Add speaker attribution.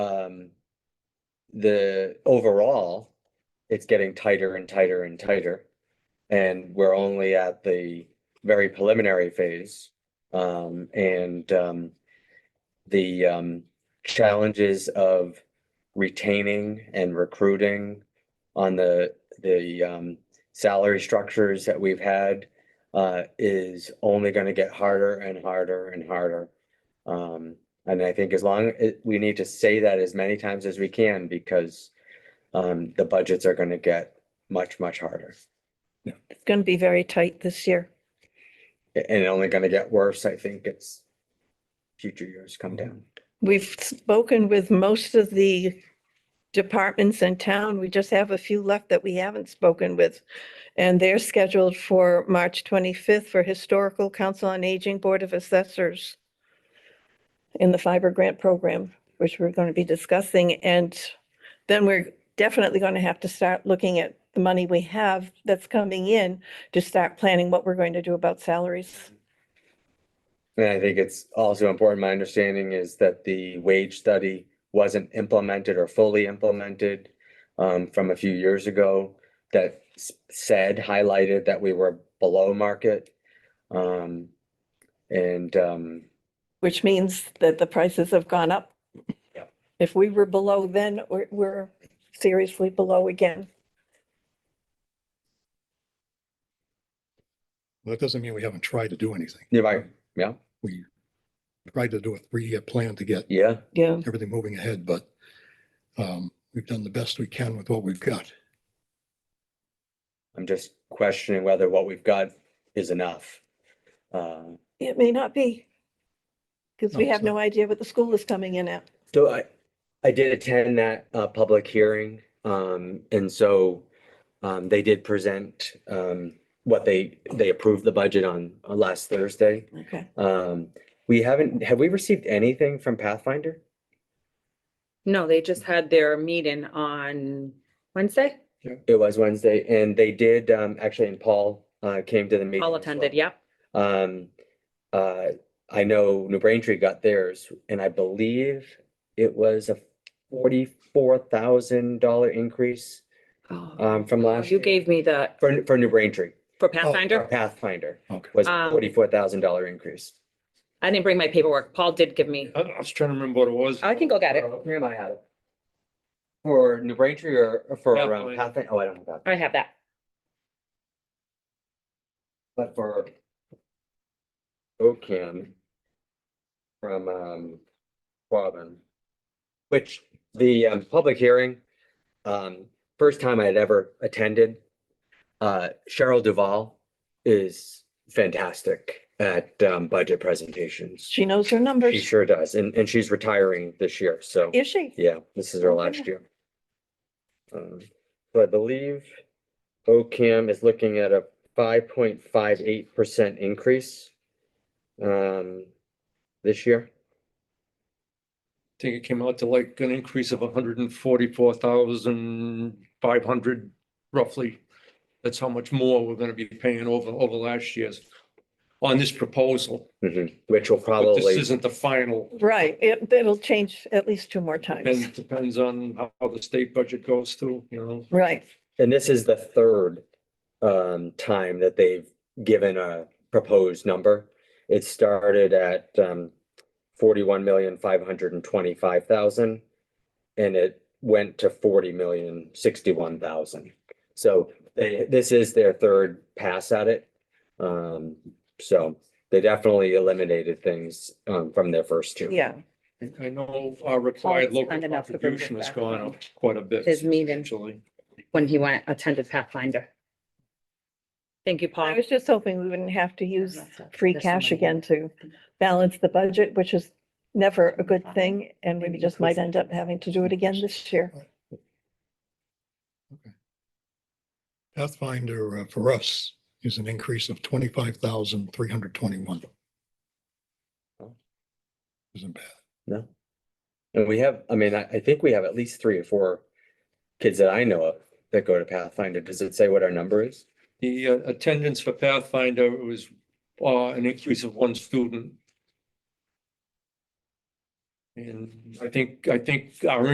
Speaker 1: um, the overall, it's getting tighter and tighter and tighter. And we're only at the very preliminary phase. Um, and, um, the, um, challenges of retaining and recruiting on the, the, um, salary structures that we've had, uh, is only gonna get harder and harder and harder. Um, and I think as long, it, we need to say that as many times as we can because um, the budgets are gonna get much, much harder.
Speaker 2: It's going to be very tight this year.
Speaker 1: A- And only gonna get worse, I think it's future years come down.
Speaker 2: We've spoken with most of the departments in town. We just have a few left that we haven't spoken with. And they're scheduled for March 25th for Historical Council on Aging Board of Assessors in the fiber grant program, which we're going to be discussing. And then we're definitely going to have to start looking at the money we have that's coming in to start planning what we're going to do about salaries.
Speaker 1: And I think it's also important, my understanding is that the wage study wasn't implemented or fully implemented um, from a few years ago that s- said, highlighted that we were below market. Um, and um,
Speaker 2: Which means that the prices have gone up.
Speaker 1: Yep.
Speaker 2: If we were below then, we're, we're seriously below again.
Speaker 3: That doesn't mean we haven't tried to do anything.
Speaker 1: you're right, yeah,
Speaker 3: We tried to do a three-year plan to get
Speaker 1: yeah.
Speaker 2: Yeah.
Speaker 3: everything moving ahead, but um, we've done the best we can with what we've got.
Speaker 1: I'm just questioning whether what we've got is enough. Uh,
Speaker 2: It may not be. Because we
Speaker 3: No, it's
Speaker 2: have no idea what the school is coming in at.
Speaker 1: So I, I did attend that uh, public hearing, um, and so um, they did present um, what they, they approved the budget on uh, last Thursday.
Speaker 2: Okay.
Speaker 1: Um, We haven't, have we received anything from Pathfinder?
Speaker 4: No, they just had their meeting on Wednesday.
Speaker 1: It was Wednesday, and they did, um, actually, and Paul uh, came to the meeting.
Speaker 4: All
Speaker 1: as
Speaker 4: attended,
Speaker 1: well.
Speaker 4: yep.
Speaker 1: Um, uh, I know New Braintree got theirs, and I believe it was a forty-four thousand dollar increase,
Speaker 4: Oh,
Speaker 1: um, from last.
Speaker 4: You
Speaker 1: year. Oh,
Speaker 4: gave me the,
Speaker 1: For, for New Braintree,
Speaker 4: for
Speaker 1: for
Speaker 4: Pathfinder,
Speaker 1: Pathfinder
Speaker 3: Okay.
Speaker 1: was
Speaker 4: Um,
Speaker 1: forty-four thousand dollar increase.
Speaker 4: I didn't bring my paperwork. Paul did give me,
Speaker 5: I I was trying to remember what it was.
Speaker 4: I can go get it.
Speaker 1: Where am I at? it? For New Braintree or or for um,
Speaker 5: Pathfinder.
Speaker 1: Pathfinder? Oh, I don't have that,
Speaker 4: I have that.
Speaker 1: but for OCAM from, um, Quabbin, which the, um, public hearing, um, first time I had ever attended. Uh, Cheryl Duvall is fantastic at, um, budget presentations.
Speaker 2: She knows her
Speaker 1: She
Speaker 2: numbers.
Speaker 1: sure does, and, and she's retiring this year, so,
Speaker 2: Is she?
Speaker 1: yeah, this is her
Speaker 2: Oh,
Speaker 1: last
Speaker 2: yeah.
Speaker 1: year. Um, So I believe OCAM is looking at a five point five eight percent increase um, this year.
Speaker 5: I think it came out to like an increase of hundred and forty-four thousand five hundred roughly. That's how much more we're gonna be paying over, over last year's on this proposal.
Speaker 1: Mhm, Which will
Speaker 5: But this
Speaker 1: probably,
Speaker 5: isn't the final,
Speaker 2: Right. It, it'll change at least two more
Speaker 5: and
Speaker 2: times.
Speaker 5: it depends on how- how the state budget goes through, you know.
Speaker 2: Right.
Speaker 1: and this is the third um, time that they've given a proposed number. It started at um, forty-one million, five hundred and twenty-five thousand. And it went to forty million, sixty-one thousand. So they, this is their third pass at it. Um, so they definitely eliminated things um, from their first two.
Speaker 2: Yeah.
Speaker 5: I- I know our required
Speaker 4: it's
Speaker 5: local
Speaker 4: kind enough to bring it
Speaker 5: contribution has
Speaker 4: back.
Speaker 5: gone up quite a bit.
Speaker 4: His meeting.
Speaker 5: Actually,
Speaker 4: when he went, attended Pathfinder. Thank you,
Speaker 2: I
Speaker 4: Paul.
Speaker 2: was just hoping we wouldn't have to use free cash again to balance the budget, which is never a good thing. And we just might end up having to do it again this year.
Speaker 3: Pathfinder uh, for us is an increase of twenty-five thousand three hundred twenty-one. Isn't bad.
Speaker 1: No. And we have, I mean, I, I think we have at least three or four kids that I know of that go to Pathfinder. Does it say what our number is?
Speaker 5: the uh, attendance for Pathfinder was uh, an increase of one student. And I think, I think our